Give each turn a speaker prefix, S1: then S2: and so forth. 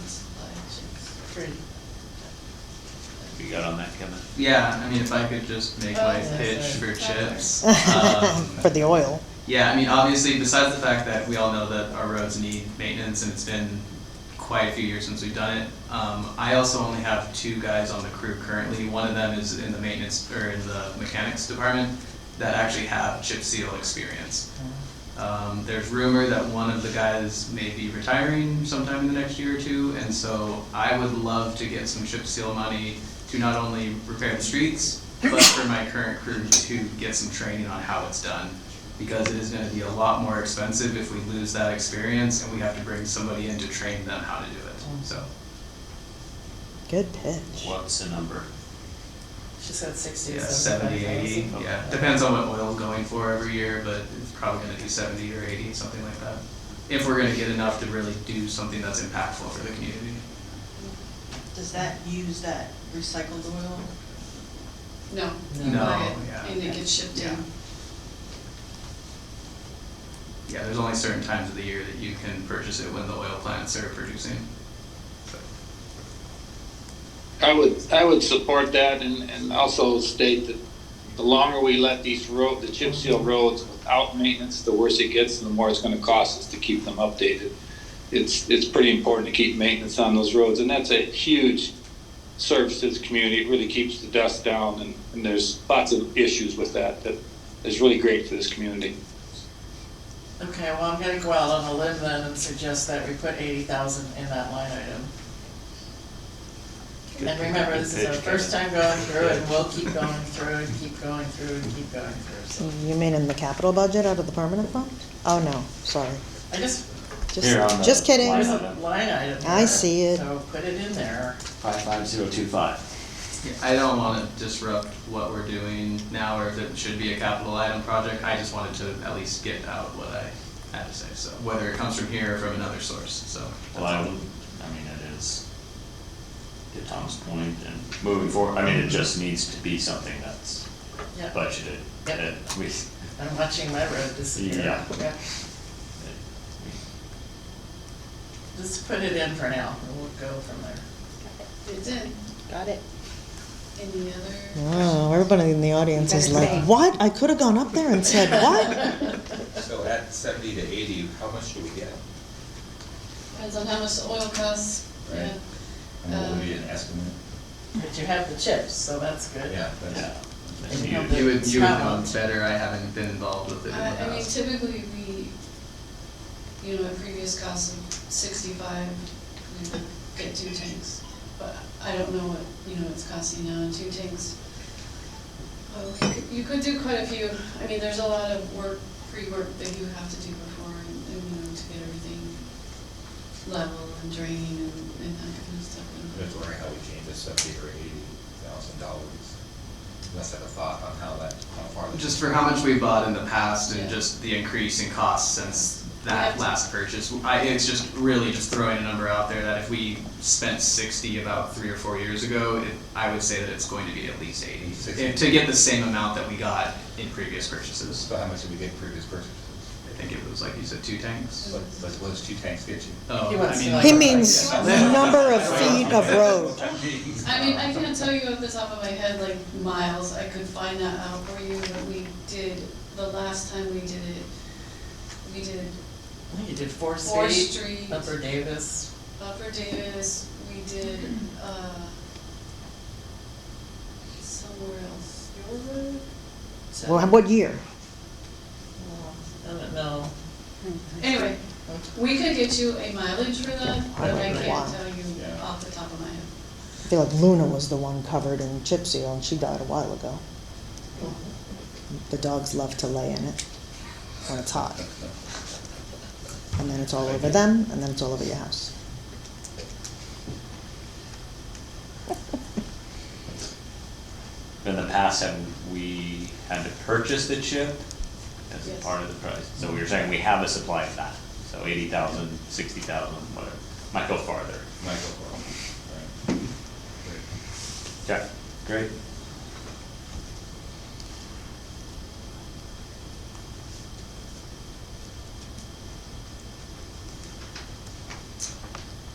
S1: Pretty.
S2: You got on that, Kevin?
S3: Yeah, I mean, if I could just make my
S1: Oh,
S3: pitch
S1: that's
S3: for
S1: right.
S3: chips. um,
S4: For the oil.
S3: Yeah, I mean, obviously, besides the fact that we all know that our roads need maintenance, and it's been quite a few years since we've done it, um, I also only have two guys on the crew currently. One of them is in the maintenance, or in the mechanics department, that actually have chip seal experience. Um, there's rumor that one of the guys may be retiring sometime in the next year or two, and so I would love to get some chip seal money to not only repair the streets, but for my current crew to get some training on how it's done. Because it is gonna be a lot more expensive if we lose that experience and we have to bring somebody in to train them how to do it, so.
S4: Good pitch.
S2: What's the number?
S1: She said sixty,
S3: Yeah,
S1: seventy-five
S3: seventy, eighty,
S1: thousand.
S3: yeah, depends on what oil's going for every year, but it's probably gonna be seventy or eighty, something like that. If we're gonna get enough to really do something that's impactful for the community.
S5: Does that use that recycled oil?
S6: No.
S3: No,
S6: Buy it,
S3: yeah.
S6: And it gets shipped
S3: Yeah.
S6: in.
S3: Yeah, there's only certain times of the year that you can purchase it when the oil plants are producing.
S7: I would, I would support that and, and also state that the longer we let these road, the chip seal roads without maintenance, the worse it gets and the more it's gonna cost us to keep them updated. It's, it's pretty important to keep maintenance on those roads and that's a huge service to the community. It really keeps the dust down and, and there's lots of issues with that, that is really great for this community.
S1: Okay, well, I'm gonna go out on a limb then and suggest that we put eighty thousand in that line item.
S2: Good-
S1: And remember, this is our
S2: good pitch,
S1: first
S2: Kevin.
S1: time going through it, and we'll keep going through and keep going through and keep going through, so.
S4: You mean in the capital budget out of the permanent fund? Oh, no, sorry.
S1: I just,
S4: Just,
S2: Here on the
S4: just kidding.
S1: there's
S2: line.
S1: a line item
S4: I
S1: there,
S4: see it.
S1: So put it in there.
S2: Five five zero two five.
S3: Yeah, I don't wanna disrupt what we're doing now or if it should be a capital item project, I just wanted to at least get out what I had to say, so, whether it comes from here or from another source, so.
S2: Well, I, would- I mean, it is, to Tom's point, and moving forward, I mean, it just needs to be something that's
S1: Yep.
S2: budgeted.
S1: Yep.
S2: that we,
S1: I'm watching my road disappear.
S2: Yeah.
S1: Yeah. Just put it in for now, and we'll go from there.
S6: It's in.
S4: Got it.
S6: Any other?
S4: Oh, everybody in the audience is like, what? I could have gone up there and said, what?
S8: So at seventy to eighty, how much do we get?
S6: Depends on how much the oil costs.
S8: Right.
S6: Yeah.
S8: And what would be an estimate?
S1: But you have the chips, so that's good.
S8: Yeah, that's,
S2: Yeah.
S1: It's
S2: You-
S1: not
S3: You would, you would know
S1: Scotland.
S3: better, I haven't been involved with it in the
S6: Uh, I, I mean,
S3: past.
S6: typically, we, you know, a previous cost of sixty-five, we would get two tanks. But I don't know what, you know, it's costing now, and two tanks. Oh, you could- You could do quite a few, I mean, there's a lot of work, pre-work that you have to do before, and, and, you know, to get everything level and draining and, and that kind of stuff.
S8: I'm just wondering how we change the seventy or eighty thousand dollars. Let's have a thought on how that, how far. that-
S3: Just for how much we bought in the past and
S6: Yeah.
S3: just the increase in costs since
S6: We
S3: that
S6: have to-
S3: last purchase, I, it's just really just throwing a number out there that if we spent sixty about three or four years ago, it, I would say that it's going to be at least eighty.
S8: Sixty.
S3: If- To get the same amount that we got in previous purchases,
S8: So how much did we get in previous purchases?
S3: I think it was like you said, two tanks?
S8: What, what what does two tanks get you?
S3: Oh,
S1: He
S3: I
S1: wants
S3: mean,
S1: to
S3: like-
S1: know.
S4: He means number of feet of road.
S6: I mean, I can't tell you off the top of my head, like, miles, I could find that out for you, but we did, the last time we did it, we did
S1: I think you did Fourth
S6: Fourth
S1: Street,
S6: Street,
S1: Upper Davis.
S6: Upper Davis, we did, uh, somewhere else, Your Road? So-
S4: Well, what year?
S1: I don't know.
S6: Anyway, we could get you a mileage for that,
S4: Yeah, I
S6: but I
S4: don't know
S6: can't
S4: why.
S6: tell you
S8: Yeah.
S6: off the top of my head.
S4: I feel like Luna was the one covered in chip seal and she died a while ago. The dogs love to lay in it when it's hot. And then it's all over them and then it's all over your house.
S2: In the past, have we had to purchase the chip as a
S6: Yes.
S2: part of the price? So we were saying we have a supply of that, so eighty thousand, sixty thousand, whatever, might go farther.
S8: Michael Corral.
S2: Okay,
S8: Right.
S2: great.